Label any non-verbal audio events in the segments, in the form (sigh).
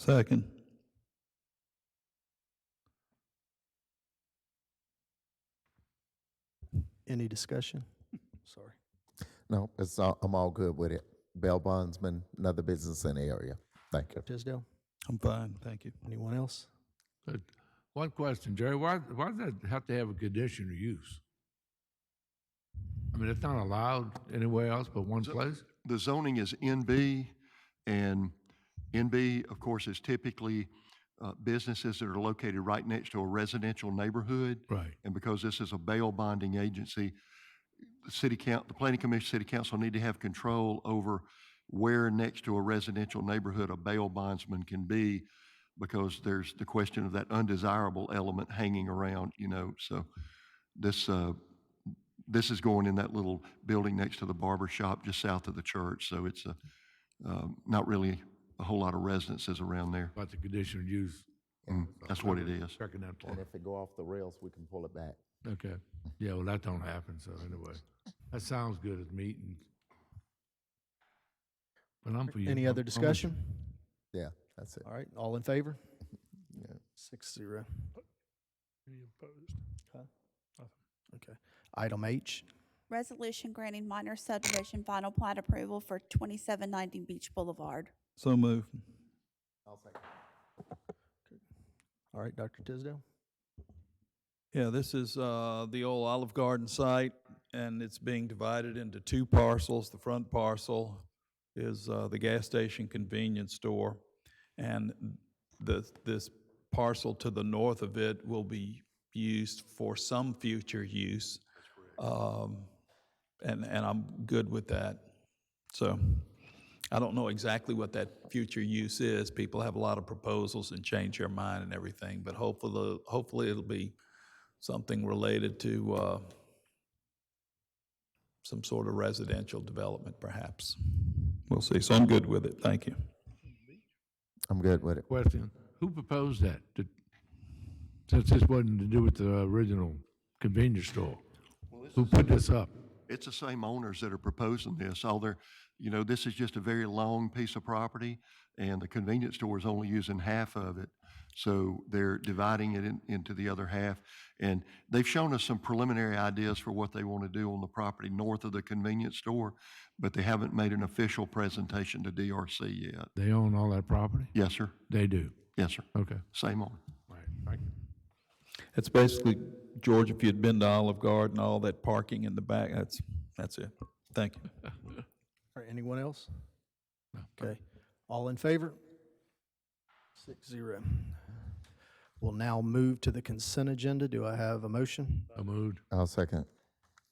Second. Any discussion? Sorry. No, it's all, I'm all good with it. Bell Bondsman, another business in the area. Thank you. Tisdale, I'm fine, thank you. anyone else? Uh, One question, Jerry, why, why does that have to have a conditional use? I mean, it's not allowed anywhere else but one place? the zoning is NB, and NB, of course, is typically uh, businesses that are located right next to a residential neighborhood. Right. And because this is a bail bonding agency, the city count, the planning commission, city council need to have control over where next to a residential neighborhood a bail bondsman can be because there's the question of that undesirable element hanging around, you know, so this, uh, this is going in that little building next to the barber shop just south of the church, so it's a, um, not really a whole lot of residences around there. About the conditional use, Mm, That's what it is. checking that And plan. if it go off the rails, we can pull it back. Okay, yeah, well, that don't happen, so anyway, that sounds good as meetings. But I'm for you. Any other I'm with you. discussion? Yeah, that's it. All right, all in favor? Six zero. Any opposed? Okay. Item H, Resolution granting minor subdivision final plat approval for 2790 Beach Boulevard. So move. all right, Dr. Tisdale? Yeah, this is uh, the old Olive Garden site, and it's being divided into two parcels. The front parcel is uh, the gas station convenience store, and the- this parcel to the north of it will be used for some future use. Um, And, and I'm good with that. So I don't know exactly what that future use is. People have a lot of proposals and change their mind and everything, but hopefully, hopefully it'll be something related to uh, some sort of residential development, perhaps. We'll see. So I'm good with it. Thank you. I'm good with it. Question, who proposed that? Did- Since this wasn't to do with the original convenience store, who put this up? It's the same owners that are proposing this, although, you know, this is just a very long piece of property, and the convenience store is only using half of it. So they're dividing it in- into the other half. And they've shown us some preliminary ideas for what they want to do on the property north of the convenience store, but they haven't made an official presentation to DRC yet. They own all that property? Yes, sir. They do, Yes, sir. okay. Same owner. Right, thank you. It's basically, George, if you'd been to Olive Garden, all that parking in the back, that's, that's it. Thank you. All right, anyone else? Okay, all in favor? Six zero. We'll now move to the consent agenda. Do I have a motion? I moved. I'll second.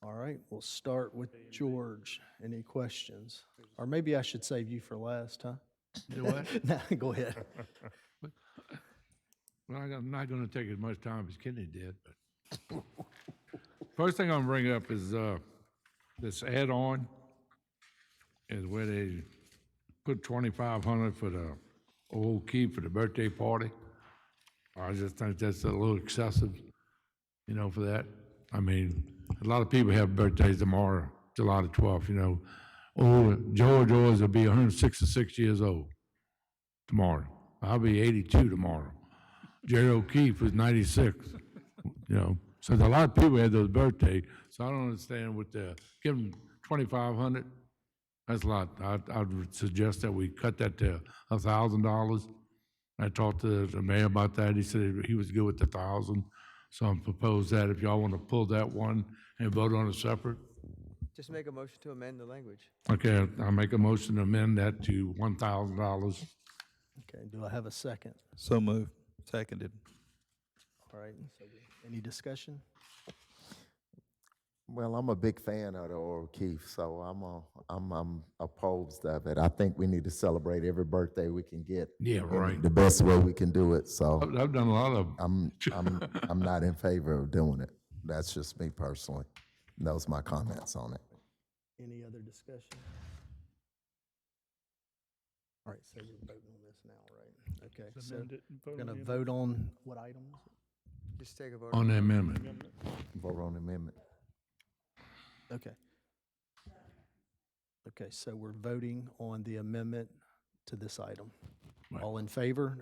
All right, we'll start with George. Any questions? Or maybe I should save you for last, huh? Do what? (laughs) No, go ahead. Well, I- I'm not going to take as much time as Kenny did, but (laughs) first thing I'm going to bring up is uh, this add-on is where they put 2,500 for the old key for the birthday party. I just think that's a little excessive, you know, for that. I mean, a lot of people have birthdays tomorrow, July the 12th, you know. Oh, George Owens will be 166 years old tomorrow. I'll be 82 tomorrow. Jerry O'Keefe was 96, you know. So there's a lot of people had those birthday, so I don't understand what the, give them 2,500? That's a lot. I, I would suggest that we cut that to $1,000. I talked to the mayor about that. He said he was good with the 1,000. So I'm propose that if y'all want to pull that one and vote on it separate. Just make a motion to amend the language. Okay, I'll make a motion to amend that to $1,000. Okay, do I have a second? So move. Seconded. All right, so any discussion? Well, I'm a big fan of the Oral Keith, so I'm a, I'm I'm opposed of it. I think we need to celebrate every birthday we can get. Yeah, in right. The best way we can do it. So (laughs) I've I've done a lot of I'm I'm I'm not in favor of doing it. That's just me personally. And Those my comments on it. Any other discussion? All right, so we're voting on this now, right? Okay, so Amend it and we're vote on gonna the- vote on what item? is it? Just take a vote. on the amendment. Vote on the amendment. Okay. Okay, so we're voting on the amendment to this item. All in favor